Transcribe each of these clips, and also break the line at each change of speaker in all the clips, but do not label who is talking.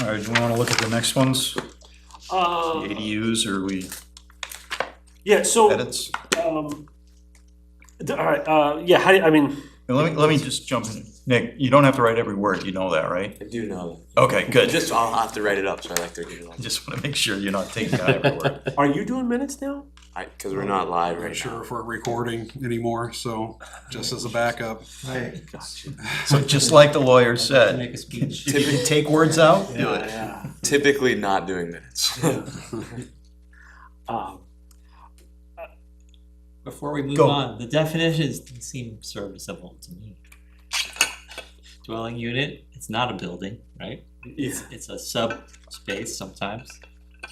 All right, do we wanna look at the next ones, The
Uh,
ADUs, or we
yeah, so,
edits?
um, th- all right, uh, yeah, how do you, I mean,
And Let me, let me just jump in, Nick, you don't have to write every word, you know that, right?
I do know
Okay,
that.
good,
Just, I'll have to write it up, so I like to do it.
just wanna make sure you're not taking out every word.
are you doing minutes now?
I, cause we're not live
I'm not
right
sure
now.
if we're recording anymore, so just as a backup.
Right.
So just like the lawyer said,
Make a speech.
if you take words out, do it.
Typically not doing minutes.
Um,
Before we move
Go.
on, the definitions seem serviceable to me. Dwelling unit, it's not a building, right?
yeah,
It's a sub space sometimes.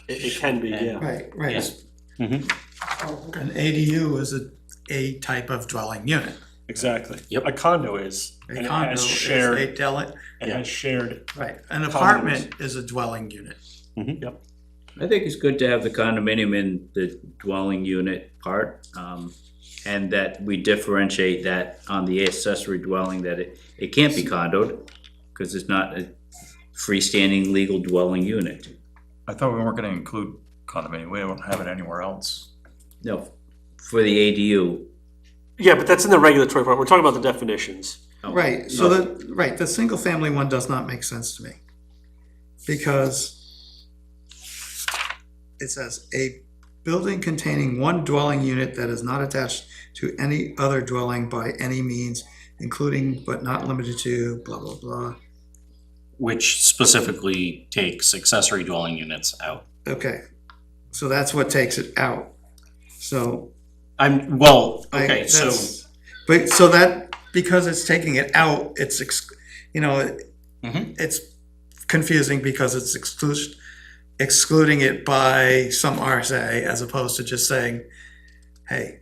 it, it can be, yeah.
Right, right.
Yeah.
Mm-hmm.
An ADU is a, a type of dwelling unit.
Exactly.
Yep.
A condo is,
A
and it
condo
has
is
shared,
a dwelling,
it has shared,
right, an apartment is a dwelling unit.
I think it's good to have the condominium in the dwelling unit part, um, and that we differentiate that on the accessory dwelling, that it, it can't be condoed, cause it's not a freestanding legal dwelling unit.
I thought we weren't gonna include condominium, we don't have it anywhere else.
No, for the ADU.
Yeah, but that's in the regulatory part, we're talking about the definitions.
no.
Right, so the, right, the single family one does not make sense to me. Because it says a building containing one dwelling unit that is not attached to any other dwelling by any means, including but not limited to blah, blah, blah.
which specifically takes accessory dwelling units out.
Okay, so that's what takes it out. So
I'm, well,
I-
okay, so,
that's- But, so that, because it's taking it out, it's, ex- you know, it-
Mhm.
it's confusing because it's exclusion, excluding it by some RSA as opposed to just saying, hey,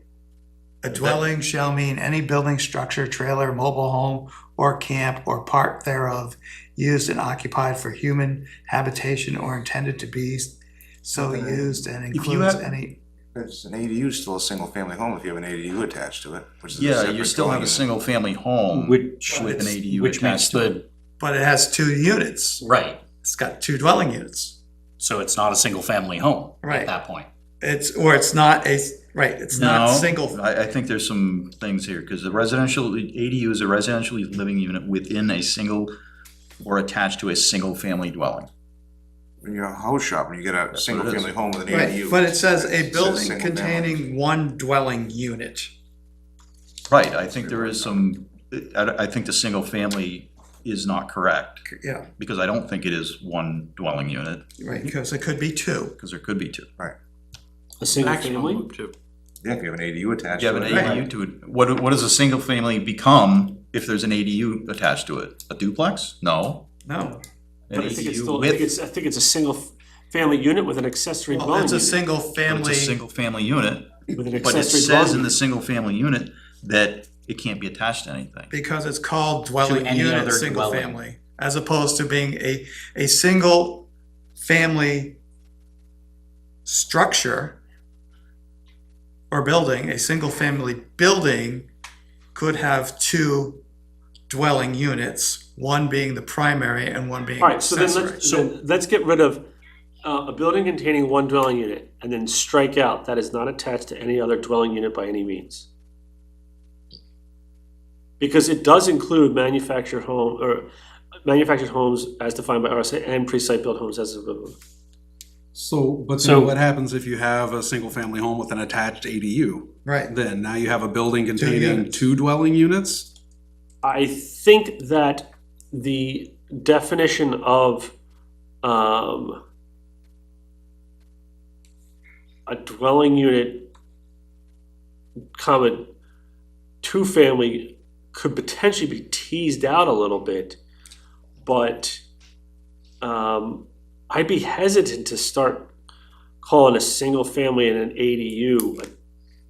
a dwelling shall mean any building, structure, trailer, mobile home, or camp, or part thereof, used and occupied for human habitation or intended to be so used and
you
includes
have-
any.
It's an ADU is still a single-family home if you have an ADU attached to it, which is a
Yeah, you
separate
still have
dwelling
a
unit.
single-family home with
which,
an ADU
which makes
attached to it.
the,
But it has two units.
right,
It's got two dwelling units.
so it's not a single family home
Right.
at that point.
It's, or it's not a, right, it's not
No,
single.
I, I think there's some things here, because the residential, ADU is a residential living unit within a single or attached to a single-family dwelling.
When you're a house shop and you get a
it
single-family home with an
Right,
ADU.
but it says a
says
building
single family.
containing one dwelling unit.
Right, I think there is some, I, I think the single-family is not correct,
Yeah,
because I don't think it is one dwelling unit,
right, because it could be two.
because there could be two.
A single family?
Yeah, if you have an ADU attached
You
to
have
it.
an
Right.
ADU to it, what, what does a single-family become if there's an ADU attached to it? A duplex? No.
No,
An
But I think it's
ADU
still, I
with-
think it's, I think it's a single f- family unit with an accessory
well,
dwelling
it's a
unit.
single
but It's a
family,
single-family unit,
With an
but it
accessory
says
dwelling
in the
unit.
single-family unit that it can't be attached to anything.
because it's called dwelling
any
unit,
other
single
dwelling.
family. As opposed to being a, a single family structure or building, a single family building could have two dwelling units, one being the primary and one being
All right, so then
accessory.
let's, then let's get rid of, uh, a building containing one dwelling unit, and then strike out, that is not attached to any other dwelling unit by any means. Because it does include manufactured home, or uh, manufactured homes as defined by RSA and pre-site built homes as.
So, but
So-
then what happens if you have a single-family home with an attached ADU?
Right,
Then now you have a building containing
units.
two dwelling units?
I think that the definition of um, a dwelling unit, comma, two family could potentially be teased out a little bit, but um, I'd be hesitant to start calling a single family and an ADU a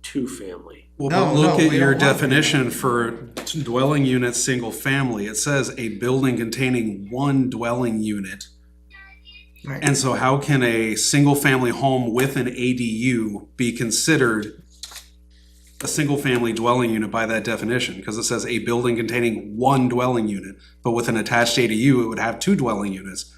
two family.
Well,
No,
but look
no,
at
we
your
don't want that.
definition for dwelling unit, single-family. It says a building containing one dwelling unit.
right.
And so how can a single-family home with an ADU be considered a single-family dwelling unit by that definition? Because it says a building containing one dwelling unit, but with an attached ADU, it would have two dwelling units.